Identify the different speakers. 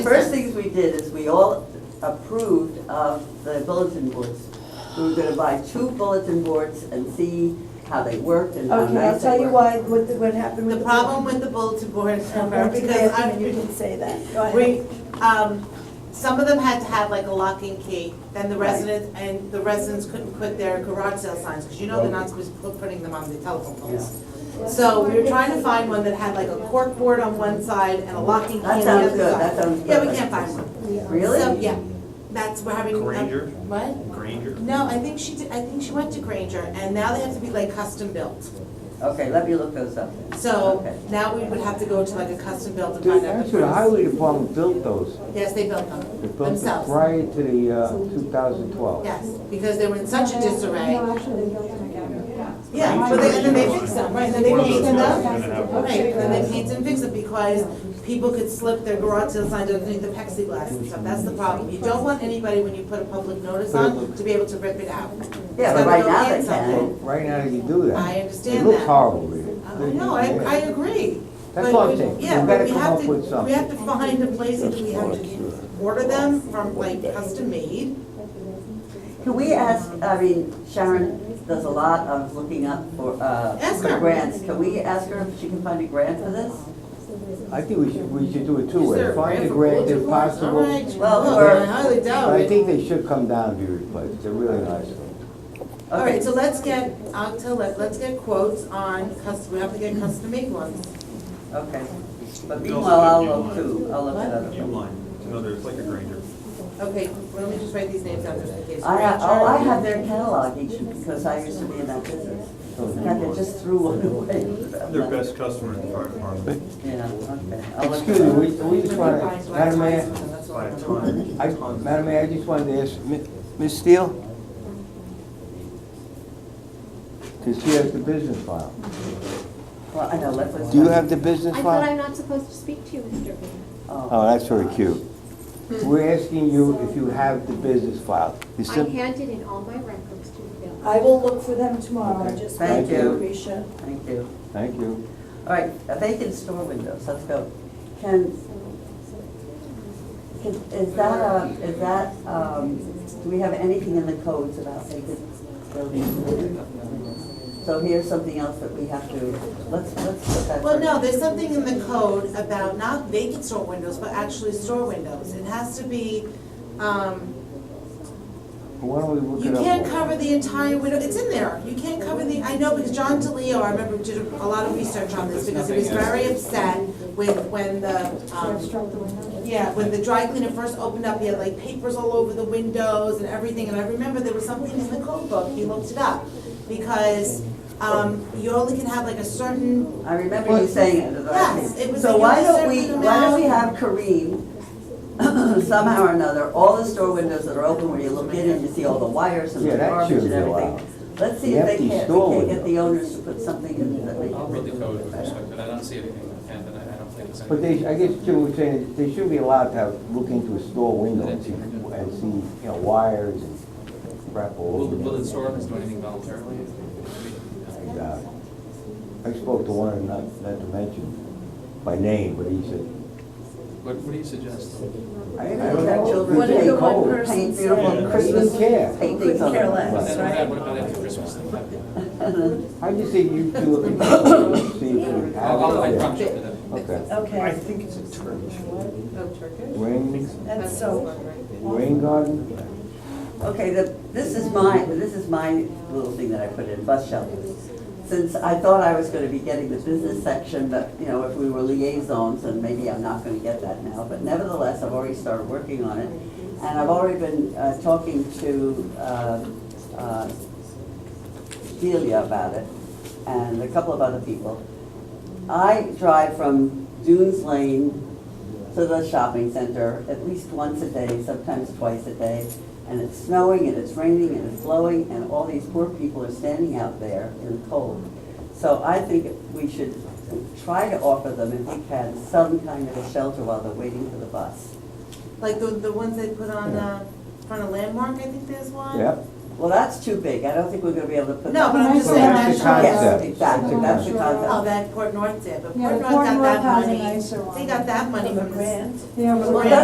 Speaker 1: First things we did is we all approved of the bulletin boards. We were gonna buy two bulletin boards and see how they worked and how
Speaker 2: Okay, I'll
Speaker 1: nice they
Speaker 2: tell
Speaker 1: were.
Speaker 2: you why, what, the- what happened with
Speaker 3: The
Speaker 2: the.
Speaker 3: problem with the bulletin board is,
Speaker 2: I'm glad you
Speaker 3: because
Speaker 2: asked
Speaker 3: I,
Speaker 2: me, You didn't say that. Go ahead.
Speaker 3: we, um, some of them had to have like a lock and key, then the
Speaker 2: Right.
Speaker 3: residents, and the residents couldn't put their garage sale signs, because you know they're not supposed to put putting them on the telephone poles. So we were trying to find one that had like a cork board on one side and a lock and key on
Speaker 1: That
Speaker 3: the other
Speaker 1: sounds
Speaker 3: side.
Speaker 1: good, that sounds good.
Speaker 3: Yeah, we can't find one. So,
Speaker 1: Really?
Speaker 3: Yeah, that's, we're having.
Speaker 4: Granger?
Speaker 3: What?
Speaker 4: Granger?
Speaker 3: No, I think she did, I think she went to Granger, and now they have to be like custom built.
Speaker 1: Okay, let me look those up. then.
Speaker 3: So
Speaker 1: Okay.
Speaker 3: now we would have to go to like a custom built and find out. the
Speaker 5: Actually, the
Speaker 3: price.
Speaker 5: highway department built those.
Speaker 3: Yes, they built them
Speaker 5: They built them
Speaker 3: themselves,
Speaker 5: prior to the uh, 2012.
Speaker 3: yes, because they were in such a disarray.
Speaker 6: No, actually, they built them again.
Speaker 3: Yeah, but they, and then they fixed them, right, and then they
Speaker 4: One of
Speaker 3: painted
Speaker 4: those guys
Speaker 3: them.
Speaker 4: is gonna have-
Speaker 3: Right, and then they painted and fixed it because people could slip their garage sale signs underneath the plexiglass and stuff, that's the problem. You don't want anybody, when you put a public notice on, to be able to rip it out.
Speaker 1: Yeah, but
Speaker 3: So
Speaker 1: right
Speaker 3: they'll
Speaker 1: now
Speaker 3: get
Speaker 1: they
Speaker 3: something.
Speaker 1: can.
Speaker 5: Right now, you do that.
Speaker 3: I understand
Speaker 5: It looks
Speaker 3: that.
Speaker 5: horrible, really.
Speaker 3: Uh, No, I, I agree.
Speaker 5: That's
Speaker 3: But
Speaker 5: what I'm
Speaker 3: we-
Speaker 5: saying.
Speaker 3: Yeah,
Speaker 5: We
Speaker 3: but
Speaker 5: better
Speaker 3: we
Speaker 5: come
Speaker 3: have
Speaker 5: up
Speaker 3: to,
Speaker 5: with
Speaker 3: we
Speaker 5: something.
Speaker 3: have to find a place that we have to order them from like custom made.
Speaker 1: Can we ask, I mean, Sharon does a lot of looking up for, uh,
Speaker 3: Ask
Speaker 1: for
Speaker 3: her.
Speaker 1: grants. Can we ask her if she can find a grant for this?
Speaker 5: I think we should, we should do it
Speaker 3: Is
Speaker 5: two
Speaker 3: there
Speaker 5: ways.
Speaker 3: a
Speaker 5: Find a
Speaker 3: for
Speaker 5: grant
Speaker 3: bulletin
Speaker 5: if
Speaker 3: boards? All
Speaker 5: possible.
Speaker 3: right,
Speaker 1: Well,
Speaker 3: look,
Speaker 1: or-
Speaker 3: I highly doubt
Speaker 5: But I
Speaker 3: it.
Speaker 5: think they should come down and be replaced. They're really nice.
Speaker 3: All right, so let's get, I'll tell, let- let's get quotes on custom, we have to get custom made ones.
Speaker 1: Okay. But
Speaker 4: We also
Speaker 1: meanwhile, I'll
Speaker 4: have
Speaker 1: look
Speaker 4: Uline.
Speaker 1: too. I'll look at other ones.
Speaker 4: Uline, it's another, it's like a Granger.
Speaker 3: Okay, let me just write these names down just in case.
Speaker 1: I have, oh, I
Speaker 3: Granger.
Speaker 1: have their catalog each because I used to be in that business. In fact, I just threw one away.
Speaker 4: Their best customer in the fire department.
Speaker 1: Yeah, okay. I'll look
Speaker 5: Excuse
Speaker 1: it
Speaker 5: me,
Speaker 1: up.
Speaker 5: we, we just want
Speaker 3: Find
Speaker 5: to, Madam Mayor,
Speaker 3: That's all
Speaker 4: By
Speaker 3: I
Speaker 4: a
Speaker 3: know.
Speaker 4: ton,
Speaker 5: I,
Speaker 4: tons.
Speaker 5: Madam Mayor, I just wanted to ask, Mi- Ms. Steele? Because she has the business file.
Speaker 1: Well, I know, let's. let's-
Speaker 5: Do you have the business
Speaker 6: I
Speaker 5: file?
Speaker 6: thought I'm not supposed to speak to you, Mr. Bean.
Speaker 1: Oh,
Speaker 5: Oh, that's very cute. We're asking you if you have the business file. You
Speaker 6: I
Speaker 5: sim-
Speaker 6: handed in all my records to the bill.
Speaker 2: I will look for them tomorrow, I just.
Speaker 1: Thank
Speaker 2: want to
Speaker 1: you.
Speaker 2: Appreciate.
Speaker 1: thank you.
Speaker 5: Thank you.
Speaker 1: All right, uh, vacant store windows, let's go. Can, can- is that, uh, is that, um, do we have anything in the codes about vacant buildings? So here's something else that we have to, let's, let's put that.
Speaker 3: Well,
Speaker 1: first.
Speaker 3: no, there's something in the code about not vacant store windows, but actually store windows. It has to be, um,
Speaker 5: Why don't we look
Speaker 3: You
Speaker 5: it up?
Speaker 3: can't cover the entire window, it's in there, you can't cover the, I know, because John DeLeo, I remember did a lot of research on this, because he was very upset with, when the, um, yeah, when the dry cleaner first opened up, he had like papers all over the windows and everything, and I remember there was something in the code book, he looked it up, because, um, you only can have like a certain,
Speaker 1: I remember you saying it.
Speaker 3: Yes, it was
Speaker 1: So
Speaker 3: like
Speaker 1: why
Speaker 3: a
Speaker 1: don't we,
Speaker 3: certain
Speaker 1: why don't we have
Speaker 3: amount.
Speaker 1: Kareem, somehow or another, all the store windows that are open where you look in and you see all the wires and the
Speaker 5: Yeah, that
Speaker 1: garbage and
Speaker 5: should be allowed.
Speaker 1: everything. Let's see if they
Speaker 5: Empty
Speaker 1: can, we
Speaker 5: store
Speaker 1: can't get
Speaker 5: window.
Speaker 1: the owners to put something in that they
Speaker 7: I'll read the
Speaker 1: can.
Speaker 7: code with respect, but I don't see anything in the and I I don't think there's
Speaker 5: But
Speaker 7: anything.
Speaker 5: they, I guess Jim was saying, they should be allowed to have, look into a store window and see, and see, you know, wires and crap all
Speaker 7: Will,
Speaker 5: over.
Speaker 7: will the
Speaker 5: there.
Speaker 7: store owners do anything voluntarily? I mean,
Speaker 5: And, uh, I spoke to one, not, not to mention by name, but he said,
Speaker 7: What, what do you suggest?
Speaker 1: Are you
Speaker 5: I
Speaker 1: gonna
Speaker 5: don't
Speaker 1: have
Speaker 5: know.
Speaker 1: children
Speaker 5: What did
Speaker 1: paint,
Speaker 5: the one person
Speaker 1: paint beautiful
Speaker 4: say?
Speaker 1: Christmas
Speaker 5: Who cares?
Speaker 1: paintings on
Speaker 2: Couldn't care
Speaker 1: them?
Speaker 2: less.
Speaker 7: And
Speaker 2: That's
Speaker 7: then
Speaker 2: right.
Speaker 7: What about after Christmas? I'll,
Speaker 5: I just think you two look into it, see if you
Speaker 7: I'll, I
Speaker 5: have
Speaker 7: promise
Speaker 5: it.
Speaker 7: you for them.
Speaker 5: there. Okay.
Speaker 4: I
Speaker 2: Okay,
Speaker 4: think it's a Turkish.
Speaker 5: Rain,
Speaker 2: and so,
Speaker 5: rain garden?
Speaker 1: Okay, the, this is my, this is my little thing that I put in, bus shelters. Since I thought I was gonna be getting the business section, but, you know, if we were liaisons, and maybe I'm not gonna get that now, but nevertheless, I've already started working on it. And I've already been, uh, talking to, uh, uh, Delia about it, and a couple of other people. I drive from Dunes Lane to the shopping center at least once a day, sometimes twice a day. And it's snowing and it's raining and it's blowing and all these poor people are standing out there in the cold. So I think we should try to offer them, if we can, some kind of a shelter while they're waiting for the bus.
Speaker 3: like the, the ones they put on, uh, front of Landmark, I think there's one.
Speaker 5: Yep.
Speaker 1: Well, that's too big. I don't think we're gonna be able to put.
Speaker 3: No,
Speaker 1: that-
Speaker 3: but I'm just
Speaker 5: So
Speaker 3: saying
Speaker 5: that's the
Speaker 3: that's-
Speaker 1: Yes,
Speaker 5: concept.
Speaker 1: exactly, that's the
Speaker 3: Oh,
Speaker 1: concept.
Speaker 3: that Port North did, but
Speaker 8: Yeah,
Speaker 3: Port North
Speaker 8: Port
Speaker 3: got
Speaker 8: North
Speaker 3: that
Speaker 8: has a
Speaker 3: money.
Speaker 8: nicer one.
Speaker 3: They got that money
Speaker 2: From the
Speaker 3: from the
Speaker 2: grant.
Speaker 3: grant.
Speaker 8: Yeah,
Speaker 3: Well,
Speaker 8: but
Speaker 1: that's